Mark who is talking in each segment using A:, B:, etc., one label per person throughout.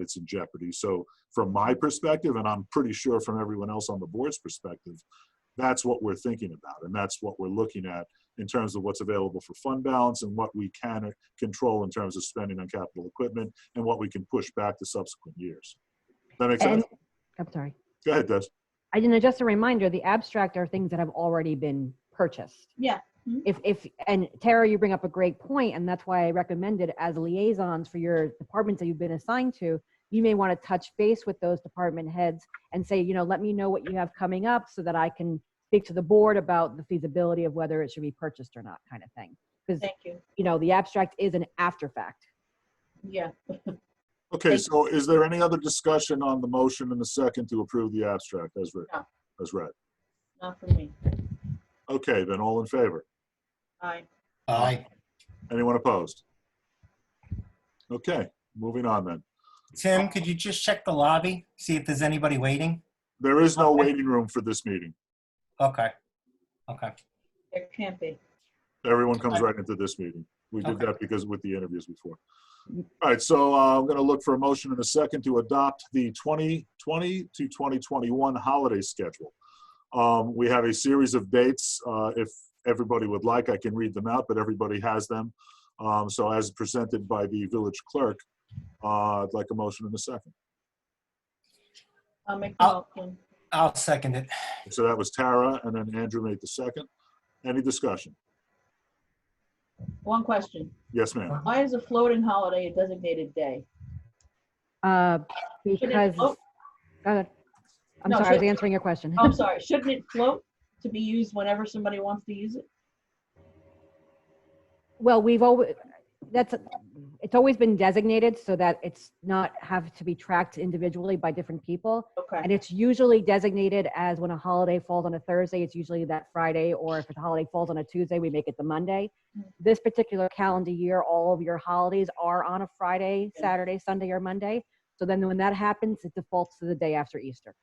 A: that's in jeopardy. So from my perspective, and I'm pretty sure from everyone else on the board's perspective, that's what we're thinking about, and that's what we're looking at in terms of what's available for fund balance and what we can control in terms of spending on capital equipment and what we can push back to subsequent years. That makes
B: And,
A: sense?
B: I'm sorry.
A: Go ahead, Des.
B: I didn't, just a reminder, the abstract are things that have already been purchased.
C: Yeah. Mm-hmm.
B: If, if, and Tara, you bring up a great point, and that's why I recommended as liaisons for your departments that you've been assigned to, you may want to touch base with those department heads and say, you know, let me know what you have coming up so that I can speak to the board about the feasibility of whether it should be purchased or not, kind of thing.
C: Thank you.
B: You know, the abstract is an after fact.
C: Yeah.
A: Okay,
C: Thank-
A: so is there any other discussion on the motion and the second to approve the abstract as read?
C: No.
A: As read.
C: Not for me.
A: Okay, then all in favor?
C: Aye.
D: Aye.
A: Anyone opposed? Okay, moving on then.
D: Tim, could you just check the lobby, see if there's anybody waiting?
A: There is no waiting room for this meeting.
D: Okay. Okay.
C: There can't be.
A: Everyone comes right into this meeting. We did
D: Okay.
A: that because with the interviews before. All right, so uh, I'm going to look for a motion in a second to adopt the 2020 to 2021 holiday schedule. Um, We have a series of dates. uh, If everybody would like, I can read them out, but everybody has them. Um, So as presented by the village clerk, uh, I'd like a motion in a second.
C: I'll make the
B: Oh.
D: I'll-
C: motion.
D: I'll second it.
A: So that was Tara, and then Andrew made the second. Any discussion?
C: One question.
A: Yes, ma'am.
C: Why is a floating holiday a designated day?
B: Uh,
C: Should it
B: because,
C: float?
B: Go ahead. I'm
C: No,
B: sorry, I was
C: should-
B: answering your question.
C: Oh, I'm sorry. Shouldn't it float to be used whenever somebody wants to use it?
B: Well, we've always, that's, it's always been designated so that it's not have to be tracked individually by different people. And
C: Okay.
B: it's usually designated as when a holiday falls on a Thursday, it's usually that Friday, or if a holiday falls on a Tuesday, we make it the Monday.
C: Mm-hmm.
B: This particular calendar year, all of your holidays are on a Friday,
C: Yeah.
B: Saturday, Sunday, or Monday. So then when that happens, it defaults to the day after Easter.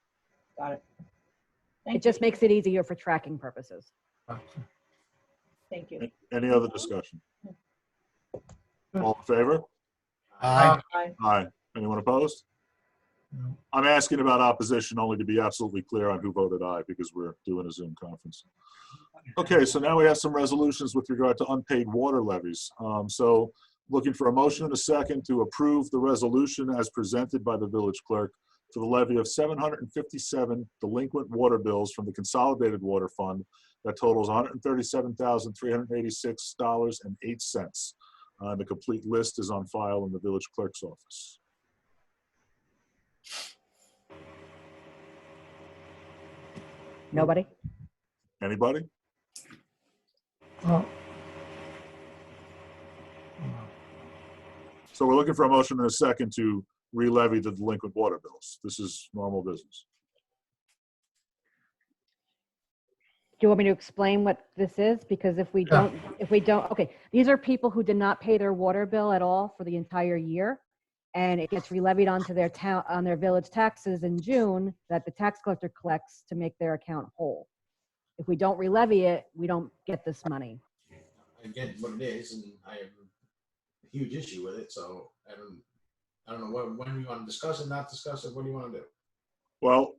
C: Got it.
B: It
C: Thank
B: just
C: you.
B: makes it easier for tracking purposes.
C: Thank you.
A: Any other discussion? All in favor?
D: Aye.
C: Aye.
A: Aye. Anyone opposed? I'm asking about opposition only to be absolutely clear on who voted aye because we're doing a Zoom conference. Okay, so now we have some resolutions with regard to unpaid water levies. Um, So looking for a motion and a second to approve the resolution as presented by the village clerk for the levy of 757 delinquent water bills from the Consolidated Water Fund that totals $137,386.08. Uh, The complete list is on file in the village clerk's office.
B: Nobody?
A: Anybody?
E: Oh.
A: So we're looking for a motion and a second to re-levy the delinquent water bills. This is normal business.
B: Do you want me to explain what this is? Because if we don't, if we don't, okay, these are people who did not pay their water bill at all for the entire year. And it gets relevied onto their town, on their village taxes in June that the tax collector collects to make their account whole. If we don't relevy it, we don't get this money.
F: I get what it is, and I have a huge issue with it. So I don't, I don't know what, when you want to discuss it, not discuss it. What do you want to do?
A: Well,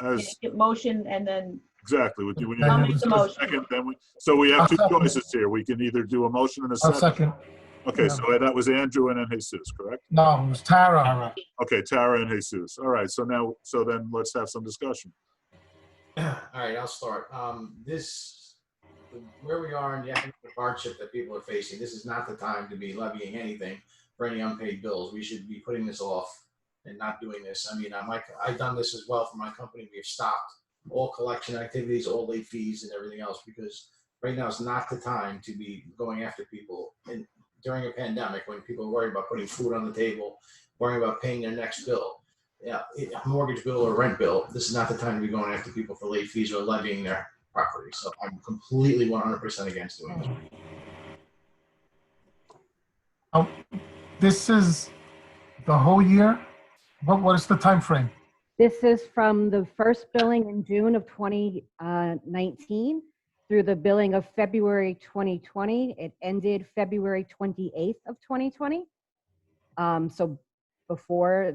A: as,
C: Make it Motion and then,
A: exactly, with you. we need
E: I'll
A: to
C: make the
A: discuss
C: motion.
A: second, Then we, so we have
E: I'll
A: two
E: second.
A: choices here. We can either do a motion and a
E: I'll
A: second.
E: second.
A: Okay,
E: yeah.
A: so that was Andrew and then Jesus, correct?
E: No, it was Tara.
D: Tara,
A: Okay, Tara and Jesus. All right, so now, so then let's have some discussion.
F: All right, I'll start. Um, this, where we are in the economic hardship that people are facing, this is not the time to be levying anything for any unpaid bills. We should be putting this off and not doing this. I mean, I'm like, I've done this as well for my company. We've stopped all collection activities, all late fees and everything else because right now is not the time to be going after people. And during a pandemic, when people are worried about putting food on the table, worrying about paying their next bill, yeah, it- a mortgage bill or rent bill, this is not the time to be going after people for late fees or levying their property. So I'm completely 100% against doing this.
E: This is the whole year? What, what is the time frame?
B: This is from the first billing in June of 2019 through the billing of February 2020. It ended February 28th of 2020. Um, So before